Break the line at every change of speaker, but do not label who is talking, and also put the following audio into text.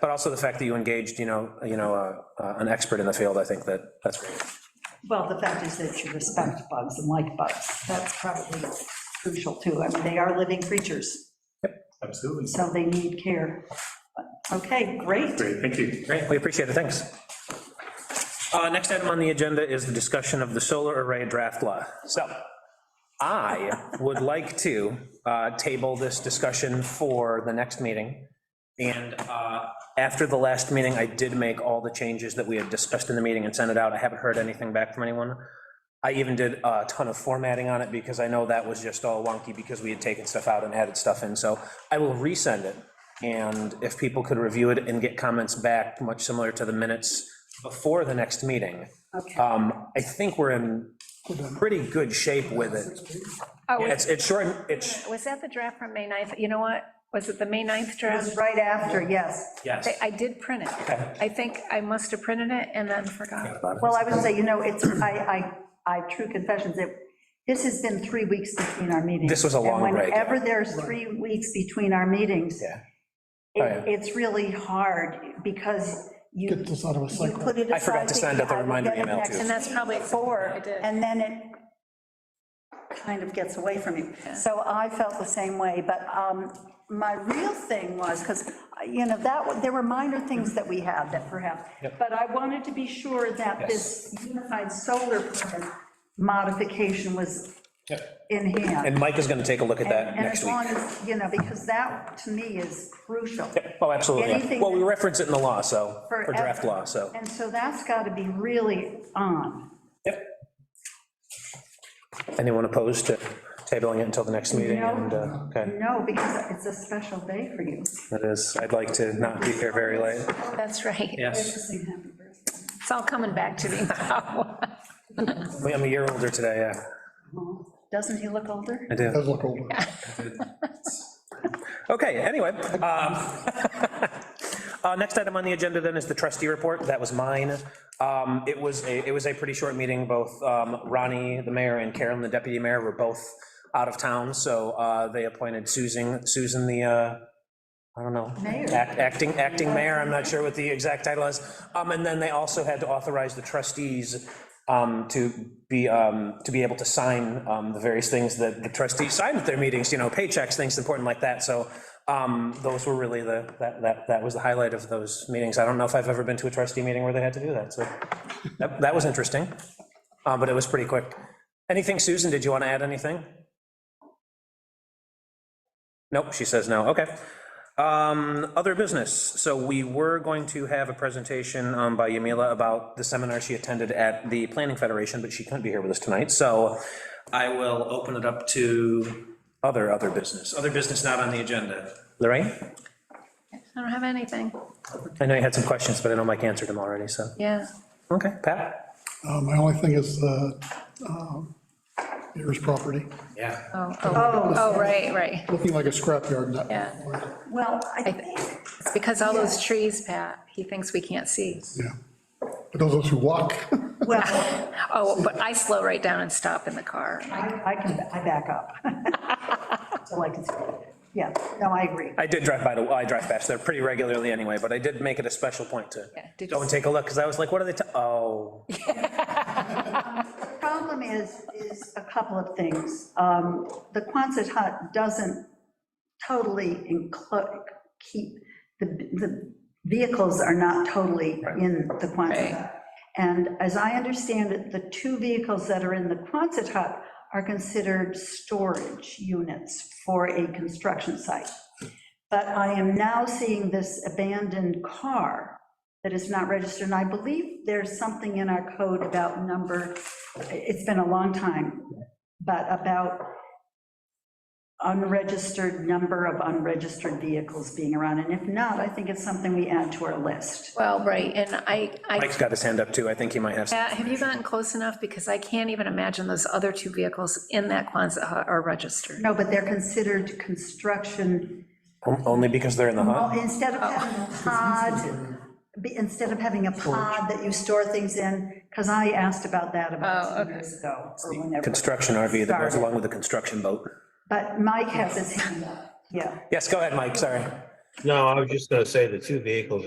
but also the fact that you engaged, you know, you know, uh, uh, an expert in the field, I think that, that's great.
Well, the fact is that you respect bugs and like bugs. That's probably crucial too. I mean, they are living creatures,
Absolutely.
so they need care. Okay, great.
Great, thank you.
Great, we appreciate it, thanks. Uh, Next item on the agenda is the discussion of the solar array draft law. So I would like to uh, table this discussion for the next meeting. And uh, after the last meeting, I did make all the changes that we had discussed in the meeting and sent it out. I haven't heard anything back from anyone. I even did a ton of formatting on it because I know that was just all wonky because we had taken stuff out and added stuff in. So I will resend it. And if people could review it and get comments back, much similar to the minutes before the next meeting.
Okay.
Um, I think we're in pretty good shape with it.
Oh,
It's,
was-
it's short, it's,
was that the draft from May 9th? You know what? Was it the May 9th
It
draft?
was right after, yes.
yes.
I- I did print it. I think I must have printed it and then forgot.
Well, I would say, you know, it's, I, I, I, true confessions, it, this has been three weeks between our meetings.
This was a long
And
break, yeah.
Whenever there's three weeks between our meetings,
Yeah.
it-
Oh, yeah.
it's really hard because you.
Get this out of a
You
cycle.
put it aside.
I forgot to send out the
thinking, I will
reminder
get it
email,
next
too.
And that's probably
before,
I did.
and then it kind of gets away from you. So I felt the same way, but um, my real thing was, because, you know, that, wa- there were minor things that we had that perhaps, but I wanted to be sure that this unified solar permit modification was in hand.
And Mike is going to take a look at that
And
next
as
week.
long as, you know, because that, to me, is crucial.
Oh, absolutely. yeah.
anything
Well, we
that-
reference it in the law, so, for draft
Forever.
law, so.
And so that's got to be really on.
Yep. Anyone opposed to tabling it until the next meeting?
No.
And, uh, okay,
No, because it's a special day for you.
that is, I'd like to not be here very late.
That's right.
Yes.
It's all coming back to me now.
I'm a year older today, yeah,
Doesn't he look older?
I do.
Does look older.
Okay, anyway, um, uh, next item on the agenda then is the trustee report, that was mine. Um, It was, a it was a pretty short meeting, both um, Ronnie, the mayor, and Karen, the deputy mayor, were both out of town, so uh, they appointed Susan, Susan the, uh, I don't know.
Mayor.
act- Acting, acting mayor, I'm not sure what the exact title is. Um, And then they also had to authorize the trustees um, to be, um, to be able to sign um, the various things that the trustees sign at their meetings, you know, paychecks, things important like that. So um, those were really the, that, that, that was the highlight of those meetings. I don't know if I've ever been to a trustee meeting where they had to do that, so that, that was interesting. Uh, But it was pretty quick. Anything, Susan, did you want to add anything? Nope, she says no, okay. Um, Other business, so we were going to have a presentation um, by Yamila about the seminar she attended at the Planning Federation, but she couldn't be here with us tonight, so I will open it up to other, other business, other business not on the agenda. Lorraine?
I don't have anything.
I know you had some questions, but I know Mike answered them already, so,
Yeah.
okay, Pat?
Uh, My only thing is the um, Ayers property,
Yeah.
Oh, oh, oh, right, right.
looking like a scrapyard. not-
Yeah.
Well, I
I
think,
think It's because all those trees, Pat, he thinks we can't see.
Yeah. But those of us who walk,
well,
Oh, but I slow right down and stop in the car.
I I can, I back up. So I can see it. Yeah, no, I agree.
I did drive by, the- well, I drive past there pretty regularly anyway, but I did make it a special point to
Yeah, did you
go and
see-
take a look, because I was like, what are they, ta- oh,
The Problem is, is a couple of things. Um, The Quonset hut doesn't totally include, keep, the, the vehicles are not totally in the Quonset
Right.
hut. And as I understand it, the two vehicles that are in the Quonset hut are considered storage units for a construction site. But I am now seeing this abandoned car that is not registered, and I believe there's something in our code about number, it's been a long time, but about unregistered, number of unregistered vehicles being around, and if not, I think it's something we add to our list.
Well, right, and I, I,
Mike's got his hand up too, I think he might have. some-
Pat, have you gotten close enough? Because I can't even imagine those other two vehicles in that Quonset hut are registered.
No, but they're considered construction,
Only because they're in the hut?
well, instead of having a pod, be- instead of having a pod that you store things in, because I asked about that
Oh,
about two
okay.
years ago, or whenever.
Construction RV that goes
Started.
along with the construction boat.
But Mike has his hand up, yeah.
Yes, go ahead, Mike, sorry.
No, I was just gonna say the two vehicles are